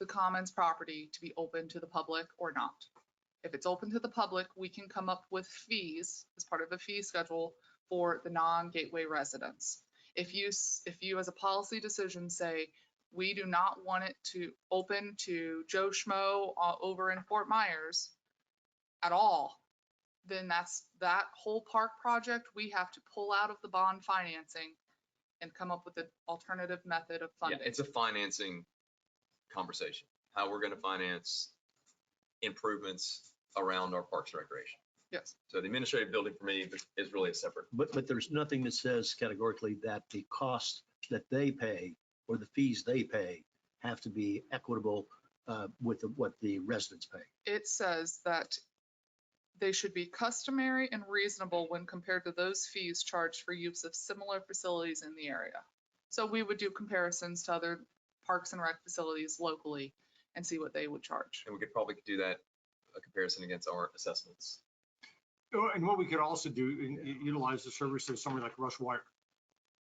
the commons property to be open to the public or not. If it's open to the public, we can come up with fees as part of the fee schedule for the non-gateway residents. If you, s- if you as a policy decision say, we do not want it to open to Joe Schmo uh, over in Fort Myers at all, then that's, that whole park project, we have to pull out of the bond financing and come up with an alternative method of Yeah, funding. it's a financing conversation, how we're gonna finance improvements around our parks and recreation. Yes. So the administrative building for me is really a separate, But, but there's nothing that says categorically that the costs that they pay or the fees they pay have to be equitable uh, with the- what the residents pay. it says that they should be customary and reasonable when compared to those fees charged for use of similar facilities in the area. So we would do comparisons to other parks and rec facilities locally and see what they would charge. and we could probably do that, a comparison against our assessments. Oh, And what we could also do, in- u- utilize the services of somebody like Russ Wire.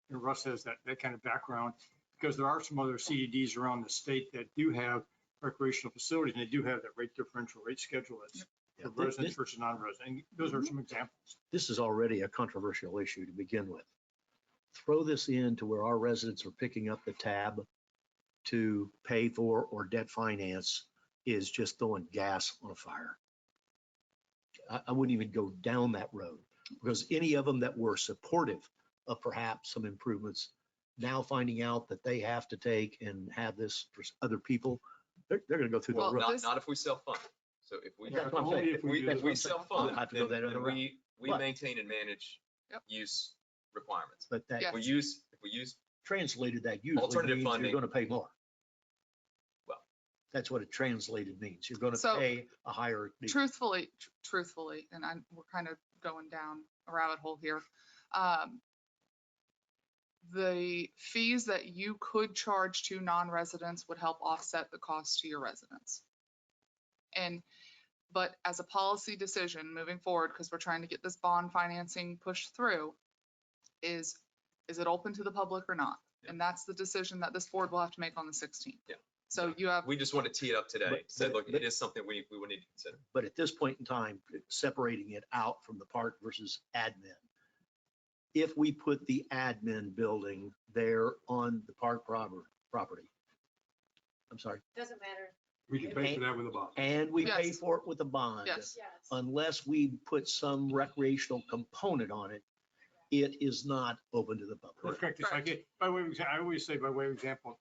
And Russ has that, that kind of background, because there are some other CEDs around the state that do have recreational facilities, and they do have that rate differential rate schedule that's Yeah, for thi- residents thi- versus non-resident. And Those are some examples. This is already a controversial issue to begin with. Throw this in to where our residents are picking up the tab to pay for or debt finance is just throwing gas on a fire. I, I wouldn't even go down that road because any of them that were supportive of perhaps some improvements, now finding out that they have to take and have this for s- other people, they're, they're going to go through Well, the not, this- not if we self-fund. So if we, That's what I'm saying. Only if we, do if we that's that. what I'm saying. self-fund, I'll have to go then that other then route. we, we But- maintain and manage Yep. use requirements. but that Yeah. If we use, if we use, translated that usually Alternative means you're funding. gonna pay more. Well. That's what it translated means. You're gonna So- pay a higher. fee. Truthfully, tr- truthfully, and I'm, we're kind of going down a rabbit hole here. um, The fees that you could charge to non-residents would help offset the cost to your residents. And, but as a policy decision moving forward, because we're trying to get this bond financing pushed through, is, is it open to the public or not? And that's the decision that this board will have to make on the 16th. Yeah. So you have, we just want to tee it up today. But- Said, but- look, but- it is something we, we would need to consider. But at this point in time, separating it out from the park versus admin. If we put the admin building there on the park proper, property. I'm sorry, Doesn't matter, We can pay for that with a bond. and we pay Yes. for it with a bond. yes. yes. Unless we put some recreational component on it, it is not open to the public. Correct. It's like, by way of example, I always say by way of example,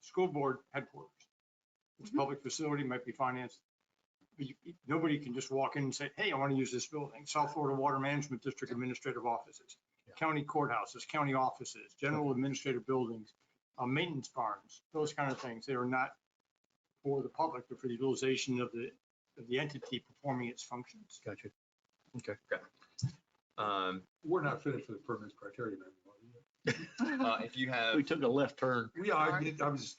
school board headquarters. It's a Mhm. public facility, might be financed. But you- you- Nobody can just walk in and say, hey, I want to use this building. South Florida Water Management District Administrative Offices, Yeah. county courthouses, county offices, general administrative buildings, uh, maintenance barns, those kind of things. They are not for the public, but for the utilization of the, of the entity performing its functions. Gotcha. Uh-huh. Um, We're not fitted for the permanent criteria anymore. uh, if you have. We took a left turn. We are, I did- I was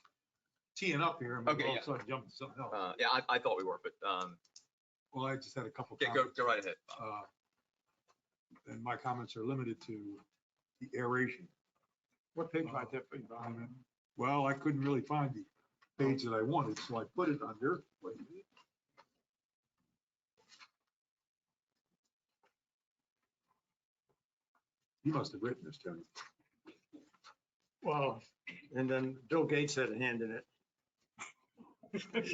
teeing up here and we Okay, all of yeah. a sudden jumped to something else. Uh, yeah, I, I thought we were, but, um, Well, I just had a couple. okay, go, comments. go right ahead. Bob. Uh, And my comments are limited to the aeration. What page might that be? Brian? Um, Well, I couldn't really find the page that I wanted, so I put it under. wait a minute. You must have written this, Tony. Well, and then Bill Gates had a hand in it. Had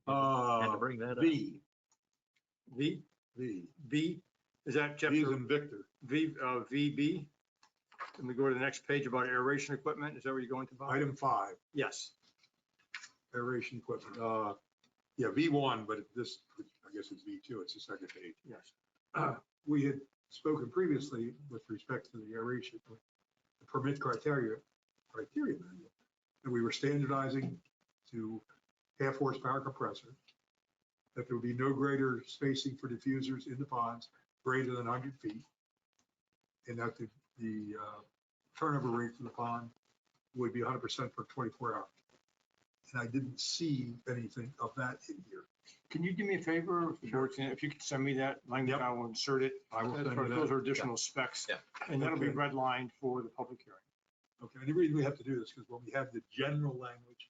to Uh, bring that up. B, V, B, B, is that B as chapter in Victor. V, uh, VB? Can we go to the next page about aeration equipment? Is that where you're going to, Bob? Item five, Yes. aeration equipment. Uh, Yeah, V1, but this, I guess it's V2, it's the second page. Yes. We had spoken previously with respect to the aeration, the permit criteria, criteria manual, and we were standardizing to half horsepower compressor, that there would be no greater spacing for diffusers in the ponds greater than 100 feet, and that the, the uh, turnover rate for the pond would be 100% for 24 hours. And I didn't see anything of that in here. Can you do me a favor, if the board can- if you could send me that language, Yep. I will insert it. I will That's send you right, that. Those are additional specs. Yeah. And that'll be Okay. redlined for the public hearing. Okay, and the reason we have to do this, because when we have the general language